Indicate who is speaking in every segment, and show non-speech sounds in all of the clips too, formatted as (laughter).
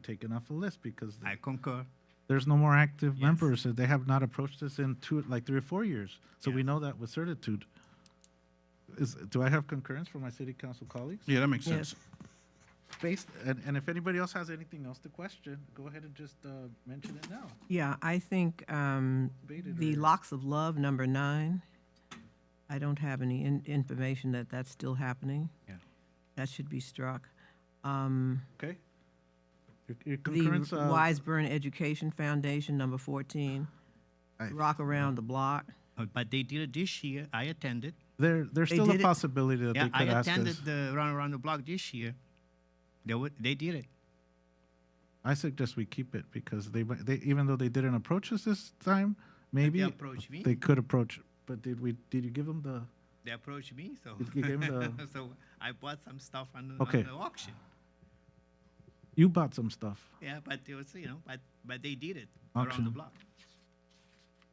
Speaker 1: taken off the list because
Speaker 2: I concur.
Speaker 1: there's no more active
Speaker 2: Yes.
Speaker 1: members. They have not approached us in two, like three or four years. So we know that with certitude. Is, do I have concurrence from my city council colleagues?
Speaker 3: Yeah, that makes sense.
Speaker 1: Based, and, and if anybody else has anything else to question, go ahead and just, uh, mention it now.
Speaker 4: Yeah, I think um,
Speaker 1: Debated
Speaker 4: the
Speaker 1: or-
Speaker 4: locks of love, number nine, I don't have any in- information that that's still happening.
Speaker 2: Yeah.
Speaker 4: That should be struck. Um,
Speaker 1: Okay? Your- Your
Speaker 4: The
Speaker 1: concurrence, uh,
Speaker 4: Wiseburn Education Foundation, number 14,
Speaker 1: I-
Speaker 4: Rock Around the Block.
Speaker 2: Uh, But they did it this year. I attended.
Speaker 1: there, there's
Speaker 4: They
Speaker 1: still a
Speaker 4: did it-
Speaker 1: possibility that they
Speaker 2: Yeah, I
Speaker 1: could ask
Speaker 2: attended
Speaker 1: us.
Speaker 2: the run around the block this year. They would, they did it.
Speaker 1: I suggest we keep it because they, might- they, even though they didn't approach us this time, maybe.
Speaker 2: approached me.
Speaker 1: They could approach, but did we, did you give them the?
Speaker 2: They approached me, so
Speaker 1: You gave 'em the-
Speaker 2: (laughs) so I bought some stuff on, the-
Speaker 1: Okay.
Speaker 2: on the auction.
Speaker 1: You bought some stuff,
Speaker 2: Yeah, but it was you know, but but they did it around the
Speaker 1: Auction.
Speaker 2: block.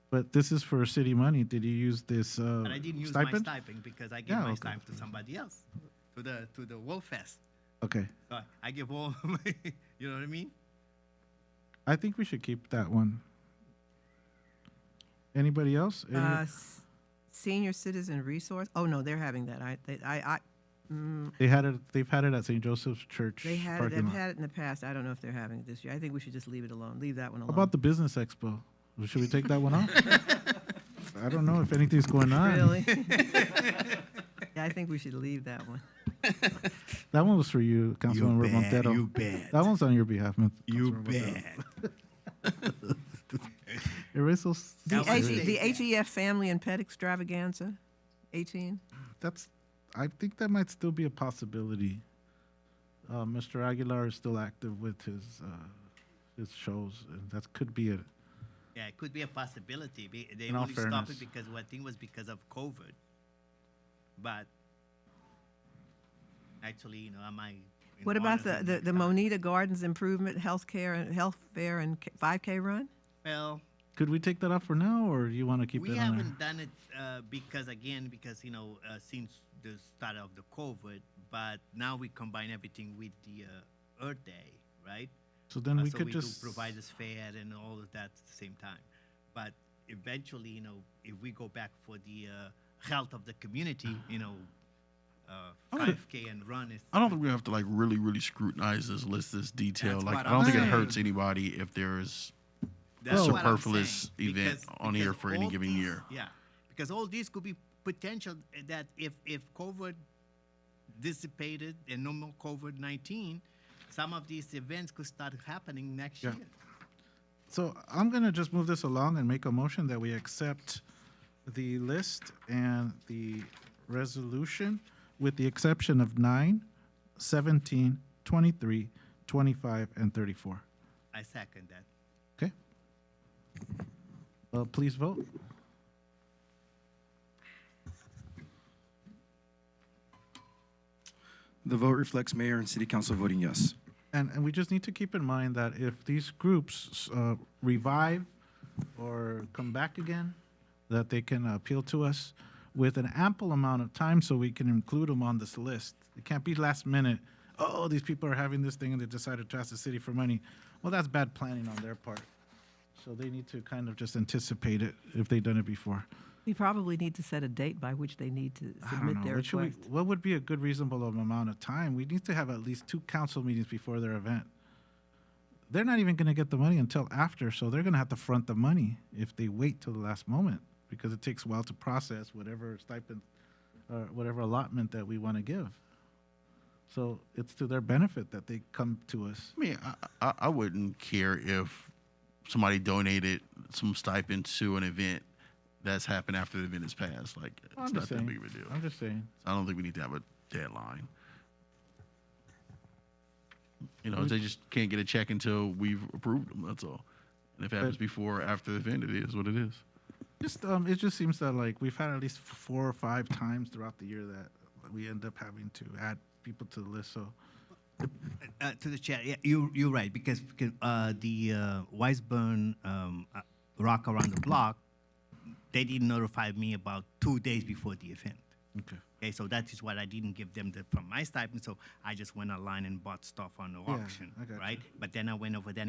Speaker 1: but this is for city money. Did you use this uh,
Speaker 2: But I didn't use
Speaker 1: stipend?
Speaker 2: my stipend because I gave
Speaker 1: Yeah,
Speaker 2: my
Speaker 1: okay.
Speaker 2: stipend to somebody else, to the to the Wolf Fest.
Speaker 1: Okay,
Speaker 2: So I give all (laughs) my, you know what I mean?
Speaker 1: I think we should keep that one. Anybody else? Any-
Speaker 4: Uh, s- Senior Citizen Resource, oh, no, they're having that. I, they- I, I- mm,
Speaker 1: they had it. They've had it at St. Joseph's Church
Speaker 4: they had, it-
Speaker 1: parking
Speaker 4: they've
Speaker 1: lot.
Speaker 4: had it in the past. I don't know if they're having it this year. I think we should just leave it alone, leave that one
Speaker 1: How
Speaker 4: alone.
Speaker 1: about the business expo? Should we take that one
Speaker 4: (laughs)
Speaker 1: off? I don't know if anything's going on. (laughs)
Speaker 4: Really? (laughs) Yeah, I think we should leave that one.
Speaker 1: That one was for you, Councilmember
Speaker 2: bet,
Speaker 1: Montero.
Speaker 2: you bet.
Speaker 1: That one's on your behalf, Mon- Councilmember Montero. Erase those.
Speaker 4: The,
Speaker 2: That was
Speaker 4: HE
Speaker 2: big.
Speaker 4: E, the HEF Family and Pet Extravaganza, 18.
Speaker 1: That's, I think that might still be a possibility. Uh, Mr. Aguilar is still active with his, uh, his shows, and that could be it.
Speaker 2: Yeah, it could be a possibility. Be- They
Speaker 1: In all
Speaker 2: only stopped
Speaker 1: fairness.
Speaker 2: it because well, I think it was because of COVID. But actually, you know, I might. in
Speaker 4: What about
Speaker 2: honor
Speaker 4: the,
Speaker 2: of
Speaker 4: the, the
Speaker 2: guy-
Speaker 4: Monita Gardens Improvement Healthcare and Health Fair and K- 5K Run?
Speaker 2: Well,
Speaker 1: Could we take that off for now, or you want to keep
Speaker 2: we
Speaker 1: it on there?
Speaker 2: haven't done it uh, because again, because you know, uh, since the start of the COVID, but now we combine everything with the uh, Earth Day, right?
Speaker 1: So then
Speaker 2: Uh,
Speaker 1: we
Speaker 2: so
Speaker 1: could
Speaker 2: do
Speaker 1: just.
Speaker 2: providers fair and all of that at the same time. But eventually, you know, if we go back for the uh, health of the community, you know, uh,
Speaker 3: I don't thi-
Speaker 2: 5K and run is.
Speaker 3: I don't think we have to like really, really scrutinize this list, this detail.
Speaker 2: That's
Speaker 3: Like,
Speaker 2: what
Speaker 3: I don't
Speaker 2: I'm
Speaker 3: think it
Speaker 1: saying.
Speaker 3: hurts anybody if there's
Speaker 2: that's what I'm
Speaker 3: superfluous
Speaker 2: saying,
Speaker 3: event on here for any
Speaker 2: all
Speaker 3: given
Speaker 2: these-
Speaker 3: year.
Speaker 2: Yeah, because all these could be potential that if if COVID dissipated and no more COVID 19, some of these events could start happening next
Speaker 1: Yeah.
Speaker 2: year.
Speaker 1: So I'm gonna just move this along and make a motion that we accept the list and the resolution with the exception of nine, seventeen, twenty-three, twenty-five, and thirty-four.
Speaker 2: I second that.
Speaker 1: Okay? Uh, please vote.
Speaker 5: The vote reflects mayor and city council voting yes.
Speaker 1: And, and we just need to keep in mind that if these groups uh, revive or come back again, that they can appeal to us with an ample amount of time so we can include them on this list. It can't be last minute, oh, these people are having this thing and they decided to ask the city for money. Well, that's bad planning on their part. So they need to kind of just anticipate it if they've done it before.
Speaker 4: We probably need to set a date by which they need to
Speaker 1: I don't
Speaker 4: submit
Speaker 1: know.
Speaker 4: their
Speaker 1: What, should we,
Speaker 4: request.
Speaker 1: what would be a good reasonable amount of time? We need to have at least two council meetings before their event. They're not even going to get the money until after, so they're going to have to front the money if they wait till the last moment because it takes a while to process whatever stipend or whatever allotment that we want to give. So it's to their benefit that they come to us.
Speaker 3: I mean, I, I, I wouldn't care if somebody donated some stipend to an event that's happened after the event has passed. Like,
Speaker 1: I'm
Speaker 3: it's
Speaker 1: just
Speaker 3: not that
Speaker 1: saying.
Speaker 3: big of a deal.
Speaker 1: I'm just saying.
Speaker 3: I don't think we need to have a deadline. You
Speaker 1: Mm.
Speaker 3: know, they just can't get a check until we've approved them. That's all. And if it happens before or after the event, it is what it is.
Speaker 1: Just um, it just seems that like we've had at least f- four or five times throughout the year that we end up having to add people to the list. So.
Speaker 2: Uh, to the chair, yeah, you you're right because, because uh, the uh, Weisburn um, uh, Rock Around the Block, they didn't notify me about two days before the event,
Speaker 1: Okay.
Speaker 2: Okay, so that is what I didn't give them the, from my stipend. So I just went online and bought stuff on the auction,
Speaker 1: I got you.
Speaker 2: right? But then I went over there